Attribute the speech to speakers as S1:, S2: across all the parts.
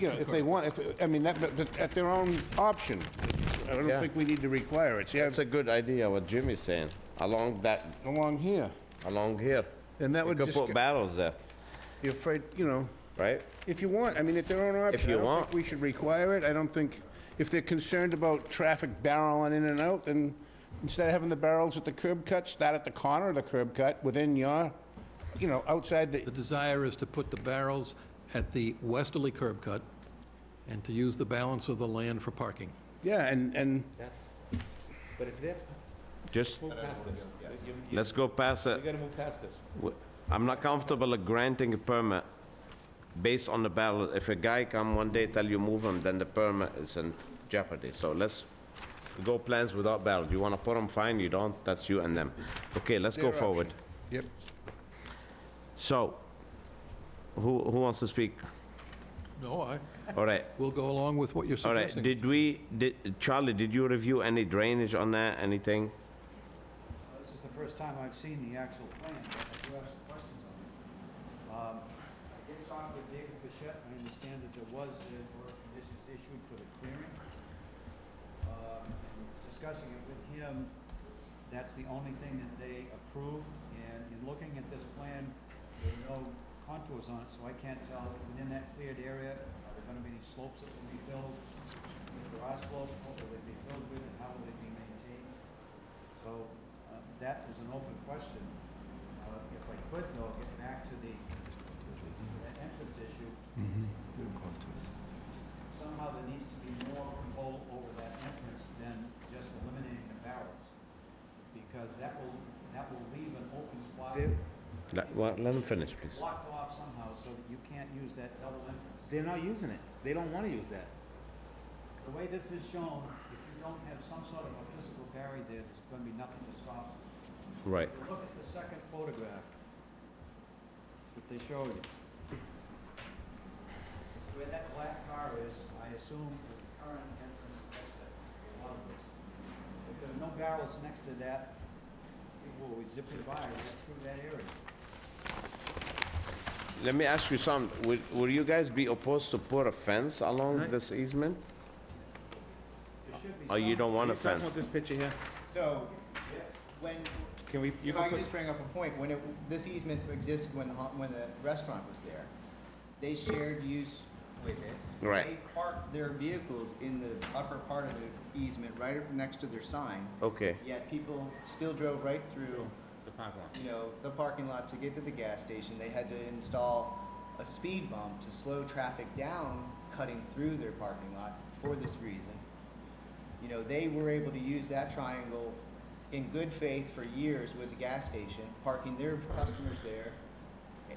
S1: you know, if they want, if, I mean, that, but- but at their own option. I don't
S2: Yeah.
S1: think we need to require it, see,
S2: That's a good idea, what Jimmy's saying, along that,
S1: along here.
S2: along here.
S1: And that
S2: You
S1: would
S2: could
S1: just
S2: put
S1: get-
S2: barrels there,
S1: You're afraid, you know,
S2: right?
S1: if you want, I mean, at their own option.
S2: you
S1: I don't think
S2: want.
S1: we should require it, I don't think, if they're concerned about traffic barreling in and out, then instead of having the barrels at the curb cut, start at the corner of the curb cut, within your, you know, outside the,
S3: The desire is to put the barrels at the westerly curb cut and to use the balance of the land for parking.
S1: yeah, and, and,
S4: But if they're,
S2: Just,
S4: move past this. You- you-
S2: let's go past
S4: You
S2: it.
S4: gotta move past this.
S2: W- I'm not comfortable at granting a permit based on the barrel. If a guy come one day, tell you move him, then the permit is in jeopardy. So let's go plans without barrels. You wanna put them, fine, you don't, that's you and them. Okay, let's
S1: Their
S2: go forward.
S1: yep.
S2: So, who, who wants to speak?
S3: No, I,
S2: All right,
S3: we'll go along with what you're
S2: all right.
S3: suggesting.
S2: Did we, did, Charlie, did you review any drainage on that, anything?
S5: This is the first time I've seen the actual plan, but I do have some questions on it. Um, I did talk with David Bichette, I understand that there was, there were conditions issued for the clearing. Um, and Discussing it with him, that's the only thing that they approved, and in looking at this plan, there are no contours on it, so I can't tell if within that cleared area, are there gonna be any slopes that will be filled? If there are slopes, what will they be filled with, and how will they be maintained? So uh, that is an open question. Uh, If I could, though, get back to the that entrance issue.
S3: Mm-hmm.
S5: Somehow there needs to be more control over that entrance than just eliminating the barrels, because that will, that will leave an open spot
S2: Let, well, let him finish, please.
S5: blocked off somehow, so that you can't use that double entrance.
S4: They're not using it. They don't wanna use that.
S5: The way this is shown, if you don't have some sort of a physical barrier there, there's going to be nothing to stop it.
S2: Right.
S5: If you Look at the second photograph that they showed you. Where that black car is, I assume is the current entrance exit, one of those. If there are no barrels next to that, people will zip it by right through that area.
S2: Let me ask you something. Will, will you guys be opposed to put a fence along this easement?
S5: There should be
S2: Or Oh, you
S5: some-
S2: don't want a
S6: Can you
S2: fence?
S6: talk about this picture here?
S7: So, when,
S6: Can we, you
S7: if I
S6: can
S7: could
S6: put,
S7: just bring up a point, when it, this easement existed when the, ho- when the restaurant was there, they shared use with it.
S2: Right.
S7: They parked their vehicles in the upper part of the easement, right up next to their sign,
S2: Okay,
S7: yet people still drove right through,
S6: the parking lot.
S7: you know, the parking lot to get to the gas station. They had to install a speed bump to slow traffic down, cutting through their parking lot for this reason. You know, they were able to use that triangle in good faith for years with the gas station, parking their customers there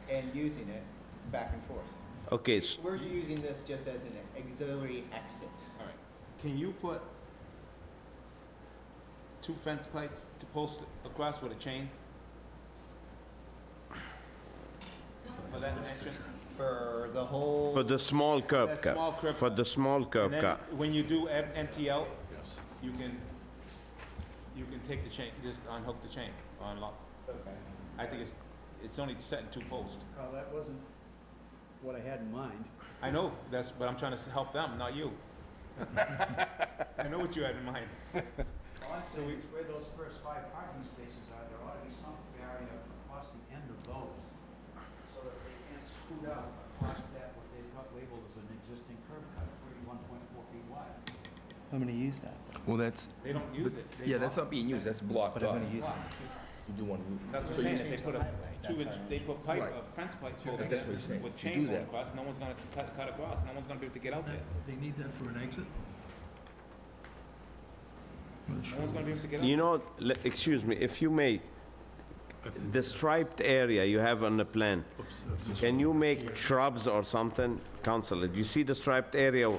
S7: a- and using it back and forth.
S2: okay, s-
S7: We're using this just as an auxiliary exit.
S6: All right. Can you put two fence plates to post across with a chain? For that entrance?
S7: For the whole,
S2: for the small curb
S6: That
S2: cut,
S6: small curb
S2: for the small curb
S6: And then
S2: cut.
S6: when you do em- empty out, you can, you can take the chain, just unhook the chain, or unlock. I think it's, it's only set in two posts.
S5: Well, that wasn't what I had in mind.
S6: I know, that's, but I'm trying to s- help them, not you. I know what you had in mind.
S5: All I'm saying is where those first five parking spaces are, there ought to be some barrier across the end of those, so that they can't scoot out across that, what they've got labeled as an existing curb cut, thirty-one point four feet wide.
S7: I'm gonna use that.
S8: Well, that's,
S6: They don't use it. They
S8: yeah, that's
S6: block
S8: not being used, that's blocked
S7: But I'm
S8: off.
S7: gonna use it.
S8: You do want
S6: it.
S8: to,
S6: That's what I'm saying, if they put a two-inch, they put pipe, a fence pipe over
S8: That's
S6: there
S8: what he's saying.
S6: with
S8: You
S6: chain
S8: do
S6: going
S8: that.
S6: across, no one's gonna cut, cut across, no one's gonna be able to get out there.
S3: They need that for an exit?
S6: No one's gonna be able to get out.
S2: You know, le- excuse me, if you may, the striped area you have on the plan, can you make shrubs or something? Counselor, do you see the striped area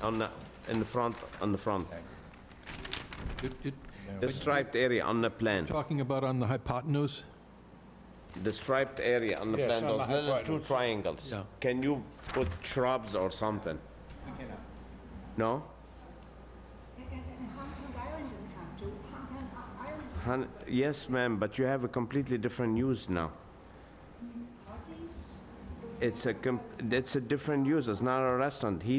S2: on the, in the front, on the front?
S3: You're you're
S2: The striped area on the plan,
S3: talking about on the hypotenuse?
S2: the striped area on the
S1: Yes,
S2: plan,
S1: on the
S2: those little two
S1: hypotenuse.
S2: triangles.
S3: Yeah.
S2: Can you put shrubs or something? No?
S9: And, and, and Hong Kong Island didn't have to, Hong Kong I- Island,
S2: Hun- Yes, ma'am, but you have a completely different use now.
S9: all these, those
S2: it's a, com- it's a different use, it's not a restaurant. He